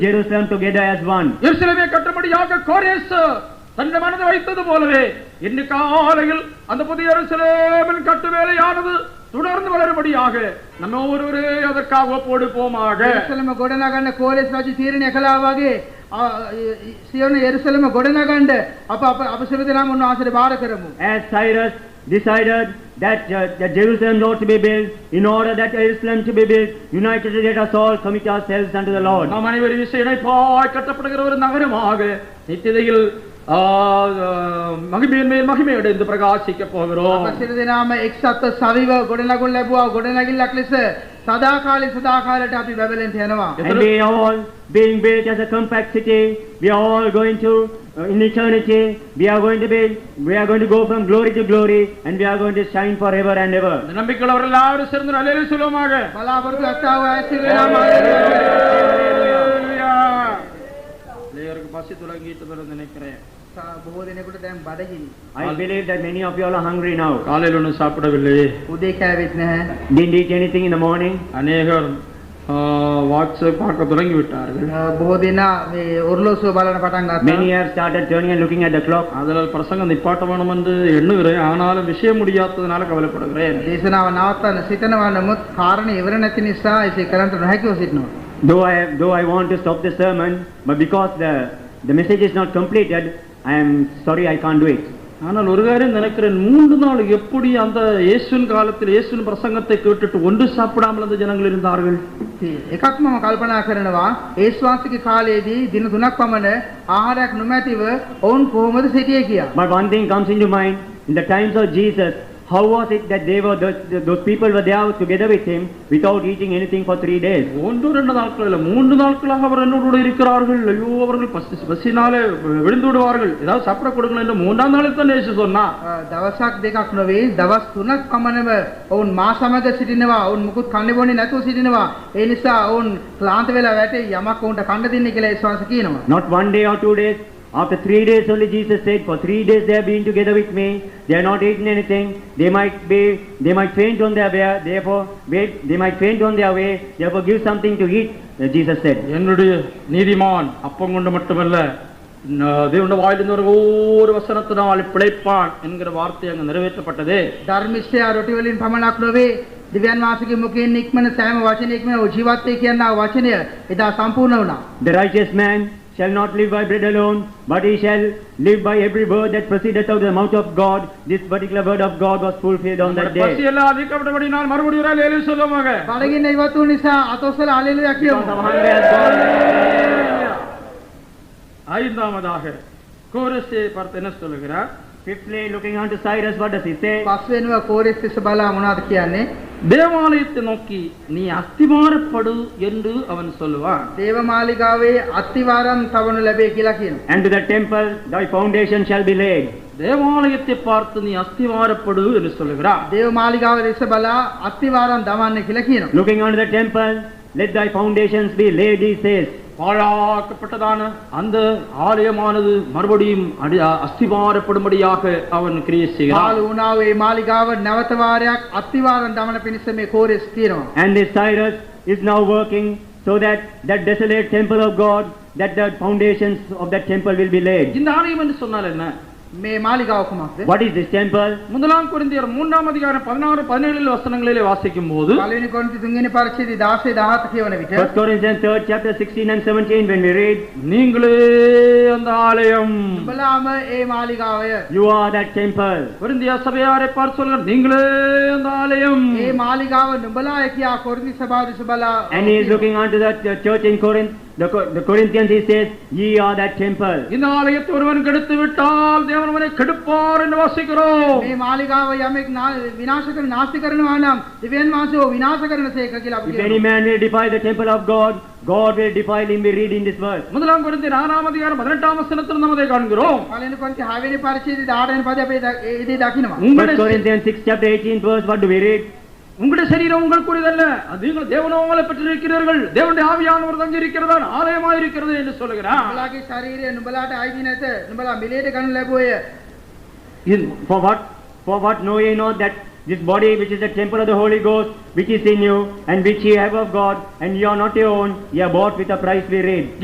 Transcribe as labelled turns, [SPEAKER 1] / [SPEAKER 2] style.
[SPEAKER 1] Jerusalem together as one.
[SPEAKER 2] எருசலேமை கட்டும்படியாக கோரேஸ் தன்னை மனதை வைத்தது போலவே இன்னைக்கு காலையில் அந்த புதிய எருசலேமின் கட்டு வேலையானது தொடர்ந்து வளரும்படியாக நம்ம ஒருவரே அதற்காக ஒப்போடு போமாக
[SPEAKER 3] එරුසලම ගොඩනගන්න කෝලෙස් රජු තීරණය කළා වගේ ආ, ඒ- ඒ- සියොන එරුසලම ගොඩනගන්න අප අප අප සියලු දෙනාම උන්වහන්සේට බාර කරමු.
[SPEAKER 1] As Cyrus decided that uh, that Jerusalem not to be built, in order that Jerusalem to be built, united let us all commit ourselves unto the Lord.
[SPEAKER 2] நாம் அனைவரும் இசை இணைப்பாய் கட்டப்படுகிற ஒரு நகரமாக நித்திதையில் ஆ, ஆ, மகிமையின் மேல் மகிமை அடைந்து பிரகாசிக்க போகிறோம்
[SPEAKER 3] අප සියලු දෙනාම එක්සත්ව සවිව ගොඩනගුන් ලැබුවා ගොඩනැගිල්ලක් ලෙස සදාකාලේ සදාකාලයට අපි බැබලෙන්ට යනවා.
[SPEAKER 1] And we are all being built as a compact city. We are all going to, uh, in eternity, we are going to be, we are going to go from glory to glory and we are going to shine forever and ever.
[SPEAKER 2] இந்த நம்பிக்கையில் எல்லாரும் சேர்ந்து நல்ல சொல்லுவோமாக
[SPEAKER 3] බලාපොරොත්තු ඇත්තාව අය සියලු දෙනාම ආශිර්වාද කරමු.
[SPEAKER 2] ஹalleluya. பிள்ளையோருக்கு பசி துலங்கிட்டு நினைக்கிறேன்
[SPEAKER 3] සා- බොහෝ දෙනෙකුට දැන් බඩගිනි.
[SPEAKER 1] I believe that many of you all are hungry now.
[SPEAKER 2] காலையில் ஒன்றும் சாப்பிடவில்லை
[SPEAKER 3] උදේ කෑවෙත් නැහැ.
[SPEAKER 1] Didn't eat anything in the morning.
[SPEAKER 2] அநேகர் ஆ, வாட்ஸ்அப் பார்க்க தொடங்கி விட்டார்கள்
[SPEAKER 3] අ, බොහෝ දෙනා මේ ඔර්ලෝසුව බලන පටන්
[SPEAKER 1] Many
[SPEAKER 3] ගත්තා.
[SPEAKER 1] have started turning and looking at the clock.
[SPEAKER 2] அதனால் பிரசங்கம் நிப்பாட்ட வேணும் என்று எண்ணுகிறேன் ஆனாலும் விஷயம் முடியாததுனால கவலைப்படுகிறேன்
[SPEAKER 3] දේශනාව නවත්වන්න සිතනවා නමුත් කාරණේ ඉවර නැති නිසා එසේ කරන්නට නොහැකිව සිටිනවා.
[SPEAKER 1] Though I, though I want to stop the sermon, but because the, the message is not completed, I am sorry I can't do it.
[SPEAKER 2] ஆனால் ஒரு காரியம் நினைக்கிறேன் மூன்று நாள் எப்படி அந்த இயேசுவின் காலத்தில் இயேசுவின் பிரசங்கத்தை கேட்டுட்டு ஒன்று சாப்பிடாமல் அந்த ஜனங்கள் இருந்தார்கள்
[SPEAKER 3] එකක් මම කල්පනා කරනවා ඒ ශ්වාසික කාලයේදී දින තුනක් පමණ ආහාරයක් නොමැතිව ඔවුන් කොහොමද සිටියේ කියලා.
[SPEAKER 1] But one thing comes into mind, in the times of Jesus, how was it that they were, those, those people were there together with him without eating anything for three days?
[SPEAKER 2] ஒன்று ரெண்டு நாட்கள் இல்லை மூன்று நாட்களாக அவர் என்னோடு கூட இருக்கிறார்கள் ஐயோ அவர்கள் பசி பசினாலே விழுந்து விடுவார்கள் ஏதாவது சாப்பிட கொடுக்கணும் என்று மூன்றாம் நாளில் தான் இயேசு சொன்னா
[SPEAKER 3] අ, දවසක් දෙකක් නොවේ දවස් තුනක් පමණම ඔවුන් මා සමග සිටිනවා ඔවුන් මුකුත් කන්නේ බොන්නේ නැතුව සිටිනවා. ඒ නිසා ඔවුන් ක්ලාන්ත වෙලා වැටේ යමක් ඔවුන්ට කන්න දෙන්නේ කියලා ඒ ශ්වාස කියනවා.
[SPEAKER 1] Not one day or two days. After three days only Jesus said, for three days they have been together with me, they have not eaten anything, they might be, they might faint on their way, therefore, wait, they might faint on their way, therefore give something to eat, uh, Jesus said.
[SPEAKER 2] என்னுடைய நீதிமான் அப்பம் கொண்டு மட்டுமல்ல ந- தேவனுடைய வாயிலிருந்து ஒரு ஒவ்வொரு வசனத்தினால் பிழைப்பான் என்கிற வார்த்தை அங்கு நிறைவேற்றப்பட்டது
[SPEAKER 3] ධර්මිෂ්ඨයා රොටි වලින් පමණක් නොවේ දිව්‍යන් වාසිකේ මුකෙන් නික්මන සෑම වචනයකම ජීවත් වේ කියනා වචනය එදා සම්පූර්ණ වුණා.
[SPEAKER 1] The righteous man shall not live by bread alone, but he shall live by every word that proceedeth out of the mouth of God. This particular word of God was fulfilled on that
[SPEAKER 2] நம்முடைய பசி
[SPEAKER 1] day.
[SPEAKER 2] எல்லாம் அதிகப்பட்டபடி நான் மறுபடியும் ஒரு ஏழு சொல்லுவாங்க
[SPEAKER 3] බලගින්න ඉවත් වූ නිසා අතොස්සල අලෙලුයක් කියවනවා.
[SPEAKER 1] Hungry as God.
[SPEAKER 2] ஐந்தாவதாக கோரஸை பார்த்து என்ன சொல்லுகிறார்
[SPEAKER 1] Fifthly, looking unto Cyrus, what does he say?
[SPEAKER 3] පස් වෙනුව කෝරෙස් තිස්ස බලා මොනවද කියන්නේ?
[SPEAKER 2] தேவாலயத்தை நோக்கி நீ அஸ்திமாரப்படு என்று அவன் சொல்லுவான்
[SPEAKER 3] දේවමාලිගාවේ අත්තිවාරම් තවනු ලැබේ කියලා කියනවා.
[SPEAKER 1] And to the temple thy foundation shall be laid.
[SPEAKER 2] தேவாலயத்தை பார்த்து நீ அஸ்திமாரப்படு என்று சொல்லுகிறான்
[SPEAKER 3] දේවමාලිගාව දෙස බලා අත්තිවාරම් දමන්න කියලා කියනවා.
[SPEAKER 1] Looking unto the temple, let thy foundations be laid, he says.
[SPEAKER 2] பாழாக்கப்பட்டதான அந்த ஆலயமானது மறுபடியும் அடி அஸ்திபாரப்படும்படியாக அவன் கிரியை செய்கிறான்
[SPEAKER 3] පාළු වුණා වූ ඒ මාලිගාව නැවත වාරයක් අත්තිවාරම් දමන පිණිස මේ කෝරෙස් කියනවා.
[SPEAKER 1] And this Cyrus is now working so that that desolate temple of God, that the foundations of that temple will be laid.
[SPEAKER 2] இந்த ஆலயம் என்று சொன்னால் என்ன
[SPEAKER 3] මේ මාලිගාව කුමක්ද?
[SPEAKER 1] What is this temple?
[SPEAKER 2] முதலாம் குருந்தியர் மூன்றாம் அதிகாரம் பதினாறு பதினேழு வசனங்களிலே வாசிக்கும் போது
[SPEAKER 3] පළවෙනි කොන්ති තුන්වෙනි පරිච්ඡේදය 16 17 කියවන
[SPEAKER 1] First
[SPEAKER 3] විට
[SPEAKER 1] Corinthians third chapter sixteen and seventeen, when we read,
[SPEAKER 2] நீங்களே அந்த ஆலயம்
[SPEAKER 3] බලාම ඒ මාලිගාවය
[SPEAKER 1] you are that temple.
[SPEAKER 2] குருந்திய சபையாரை பார்த்து சொல்கிறார் நீங்களே அந்த ஆலயம்
[SPEAKER 3] ඒ මාලිගාව නුඹලා කියා කොරින්ති සභාව දෙස බලා
[SPEAKER 1] And he is looking unto the the church in Corinth, the Cor- the Corinthians, he says, ye are that temple.
[SPEAKER 2] இந்த ஆலயத்தை ஒருவன் கெடுத்து விட்டால் தேவன் அவனை கெடுப்பார் என்று வாசிக்கிறோம்
[SPEAKER 3] මේ මාලිගාව යමෙක් නා- විනාශ කරන නාස්ති කරනවා නම් දිව්‍යන් වහන්සේ ඔහු විනාශ කරන සේක කියලා අපි
[SPEAKER 1] If any
[SPEAKER 3] කියනවා.
[SPEAKER 1] man will defile the temple of God, God will defile him, we read in this verse.
[SPEAKER 2] முதலாம் குருந்தியர் ஆறாம் அதிகாரம் பதினெட்டாம் வசனத்தில் நாம் அதை காண்கிறோம்
[SPEAKER 3] පළවෙනි කොන්ති 6 වෙනි පරිච්ඡේදය 18 වෙනි පදේ අපි ද- ඒ විදිහේ දකිනවා.
[SPEAKER 1] First
[SPEAKER 2] உங்களுடைய
[SPEAKER 1] Corinthians six chapter eighteen verse, what do we read?
[SPEAKER 2] உங்களுடைய சரீரம் உங்களுக்குரியதல்ல அது நீங்கள் தேவனோங்களை பெற்றிருக்கிறீர்கள் தேவனுடைய ஆவியானவர் தங்கியிருக்கிறதா ஆலயமாக இருக்கிறது என்று சொல்லுகிறார்
[SPEAKER 3] නුඹලාගේ ශරීරය නුඹලාට අයිති නැත. නුඹලා මිලේට ගන්න ලැබුවය.
[SPEAKER 1] In, for what, for what know ye not that this body which is the temple of the Holy Ghost, which is in you, and which ye have of God, and ye are not your own, ye are bought with a price, we read.